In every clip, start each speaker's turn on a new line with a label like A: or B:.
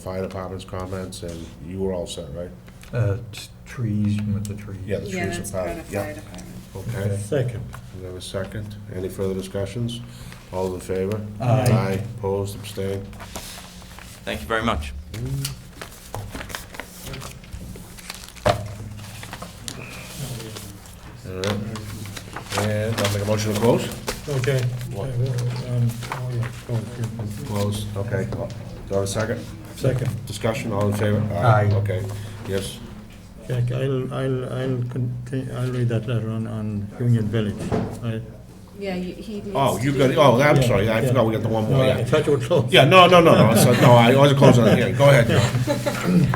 A: fire department's comments, and you were all set, right?
B: Uh, t- trees, you want the trees?
A: Yeah, the
C: Yeah,
A: trees
C: that's
A: are
C: part
A: part,
C: of fire
A: yeah.
C: department.
A: Okay,
D: Second.
A: we have a second. Any further discussions? All in favor?
B: Aye.
A: Aye, opposed, abstained?
E: Thank you very much.
A: All right. And I'll make a motion to close?
D: Okay.
A: What?
D: Um, oh, yeah, oh,
A: Close. Okay, do I have a second?
D: yeah. Second.
A: Discussion, all in favor?
B: Aye.
A: Okay, yes.
D: Okay, I'll, I'll, I'll continue, I'll read that letter on, on Union Village. I-
C: Yeah, you- he needs to.
A: Oh, you
C: do
A: got,
C: that.
A: oh, I'm sorry, I
D: Yeah.
A: forgot we got the one more,
D: I
A: yeah.
D: thought you were close.
A: Yeah, no, no, no, no, so- no, I wasn't closing on here. Go ahead, John.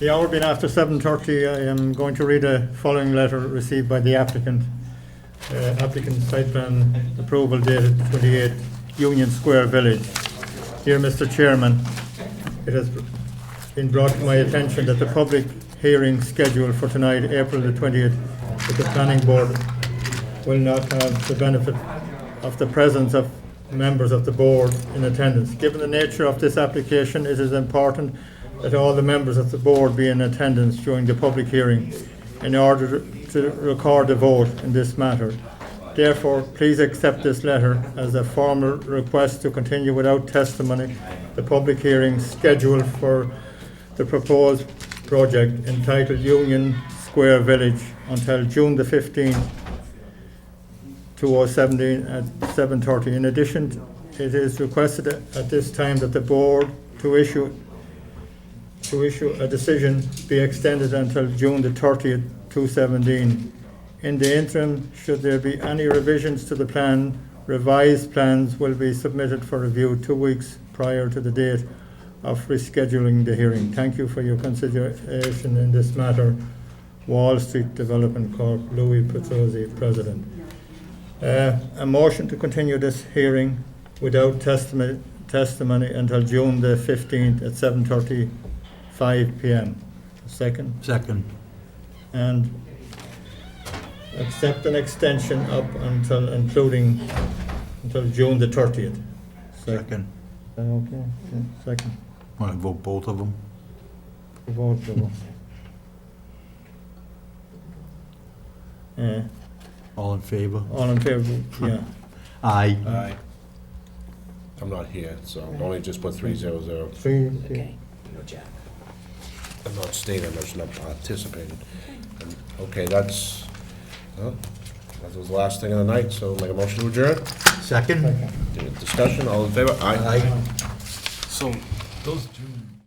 D: The hour being after seven thirty, I am going to read a following letter received by the applicant. Uh, applicant site plan approval dated twenty-eight Union Square Village. Dear Mr. Chairman, it has been brought to my attention that the public hearing scheduled for tonight, April the twentieth, at the planning board will not have the benefit of the presence of members of the board in attendance. Given the nature of this application, it is important that all the members of the board be in attendance during the public hearing in order to record a vote in this matter. Therefore, please accept this letter as a formal request to continue without testimony the public hearing scheduled for the proposed project entitled Union Square Village until June the fifteenth, 2017 at 7:30. In addition, it is requested at this time that the board to issue, to issue a decision be extended until June the 30th, 2017. In the interim, should there be any revisions to the plan, revised plans will be submitted for review two weeks prior to the date of rescheduling the hearing. Thank you for your consideration in this matter. Wall Street Development Corp., Louis Petrozzi, President. Uh, A motion to continue this hearing without testimony, testimony until June the 15th at 7:35 PM. Second,
B: Second.
D: and accept an extension up until, including, until June the 30th. Second.
B: Second.
D: Okay, yeah, second.
B: Want to vote both of them?
D: Vote, vote. Uh,
B: All in favor?
D: All in favor, yeah.
B: Aye.
A: Aye. I'm not here, so only just put three zero zero.
D: Three, two.
C: Okay.
A: I'm not staying, I'm just not participating. And- Okay, that's, huh, that was the last thing of the night, so make a motion to adjourn.
B: Second?
A: Discussion, all in favor? Aye.
B: Aye.
F: So, those June